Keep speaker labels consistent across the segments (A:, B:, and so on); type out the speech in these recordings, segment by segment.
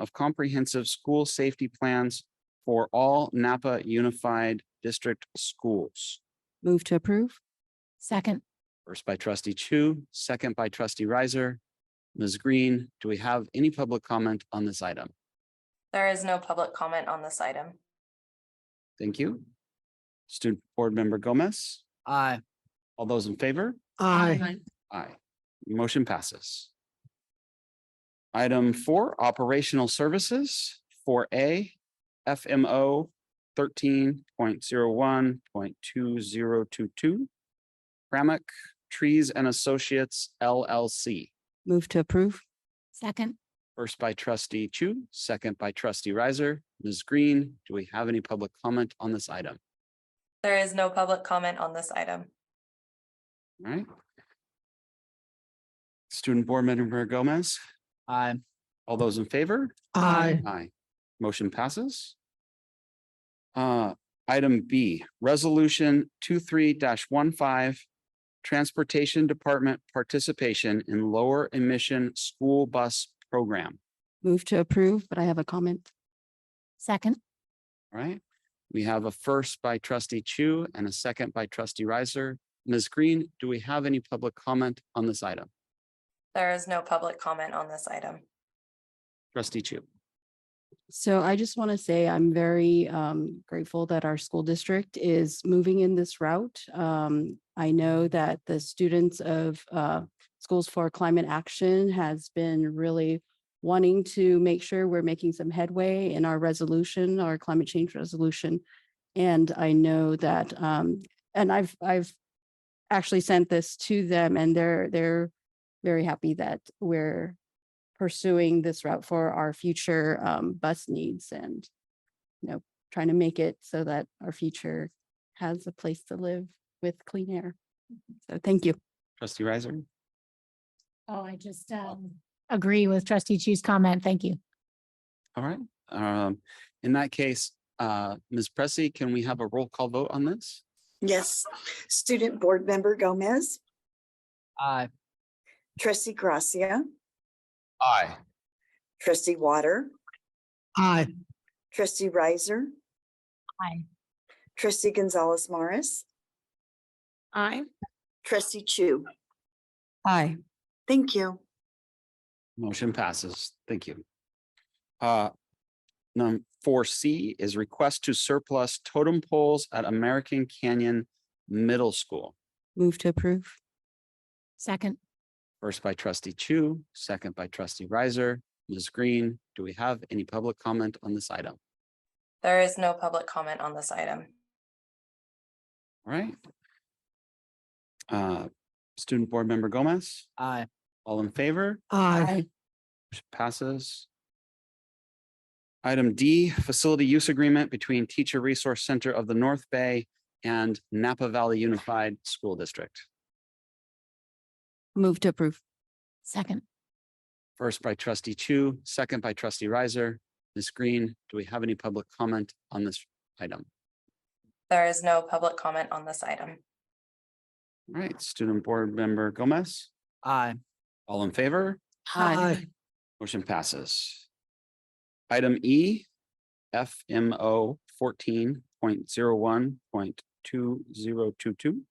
A: of comprehensive school safety plans for all Napa Unified District schools.
B: Move to approve. Second.
A: First by trustee Chu, second by trustee Riser. Ms. Green, do we have any public comment on this item?
C: There is no public comment on this item.
A: Thank you. Student Board Member Gomez,
D: Aye.
A: all those in favor?
D: Aye.
A: Aye. Motion passes. Item four, operational services for A FMO thirteen point zero one point two zero two two. Pramac Trees and Associates LLC,
B: Move to approve. Second.
A: first by trustee Chu, second by trustee Riser. Ms. Green, do we have any public comment on this item?
C: There is no public comment on this item.
A: All right. Student Board Member Gomez,
D: Aye.
A: all those in favor?
B: Aye.
A: Aye. Motion passes. Uh, item B, resolution 23 one five. Transportation Department participation in lower emission school bus program,
B: Move to approve, but I have a comment. Second.
A: All right? We have a first by trustee Chu and a second by trustee Riser. Ms. Green, do we have any public comment on this item?
C: There is no public comment on this item.
A: Trustee Chu,
B: So I just want to say I'm very um, grateful that our school district is moving in this route. Um, I know that the students of uh, Schools for Climate Action has been really wanting to make sure we're making some headway in our resolution, our climate change resolution. And I know that, um, and I've, I've actually sent this to them and they're, they're very happy that we're pursuing this route for our future um, bus needs and, you know, trying to make it so that our future has a place to live with clean air. So thank you.
A: trustee Riser,
E: Oh, I just um agree with trustee Chu's comment. Thank you.
A: all right? Um, in that case, uh, Ms. Pressy, can we have a roll call vote on this?
F: Yes. Student Board Member Gomez,
D: Aye.
F: Trustee Gracia,
G: Aye.
F: Trustee Water,
D: Aye.
F: Trustee Riser,
E: Aye.
F: Trustee Gonzalez Morris. Aye. Trustee Chu.
B: Aye.
F: Thank you.
A: Motion passes. Thank you. Uh, number four C is request to surplus totem poles at American Canyon Middle School.
B: Move to approve.
E: Second.
A: First by trustee Chu, second by trustee Riser. Ms. Green, do we have any public comment on this item?
C: There is no public comment on this item.
A: All right. Uh, student board member Gomez,
D: Aye.
A: all in favor?
D: Aye.
A: Motion Passes. Item D, facility use agreement between Teacher Resource Center of the North Bay and Napa Valley Unified School District.
B: Move to approve.
E: Second.
A: First by trustee Chu, second by trustee Riser. Ms. Green, do we have any public comment on this item?
C: There is no public comment on this item.
A: All right, student board member Gomez,
D: Aye.
A: all in favor?
B: Aye.
A: Motion passes. Item E, FMO fourteen point zero one point two zero two two.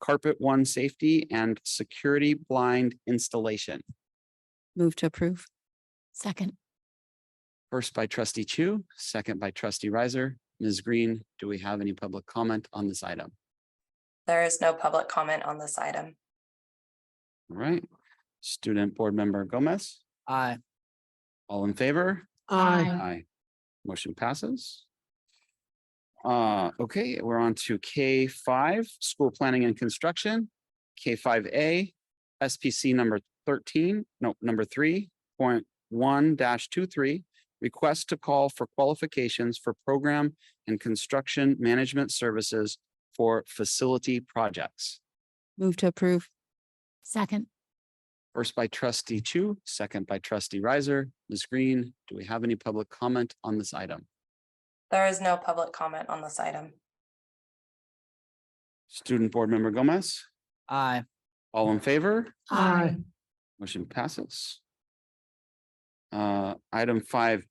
A: Carpet One Safety and Security Blind Installation.
B: Move to approve.
E: Second.
A: First by trustee Chu, second by trustee Riser. Ms. Green, do we have any public comment on this item?
C: There is no public comment on this item.
A: All right. Student Board Member Gomez,
D: Aye.
A: all in favor?
E: Aye.
A: Aye. Motion passes. Uh, okay, we're on to K five, school planning and construction. K five A, SPC number thirteen, no, number three point one dash two three. Request to call for qualifications for program and construction management services for facility projects.
B: Move to approve.
E: Second.
A: First by trustee Chu, second by trustee Riser. Ms. Green, do we have any public comment on this item?
C: There is no public comment on this item.
A: Student Board Member Gomez?
D: Aye.
A: All in favor?
E: Aye.
A: Motion passes. Uh, item five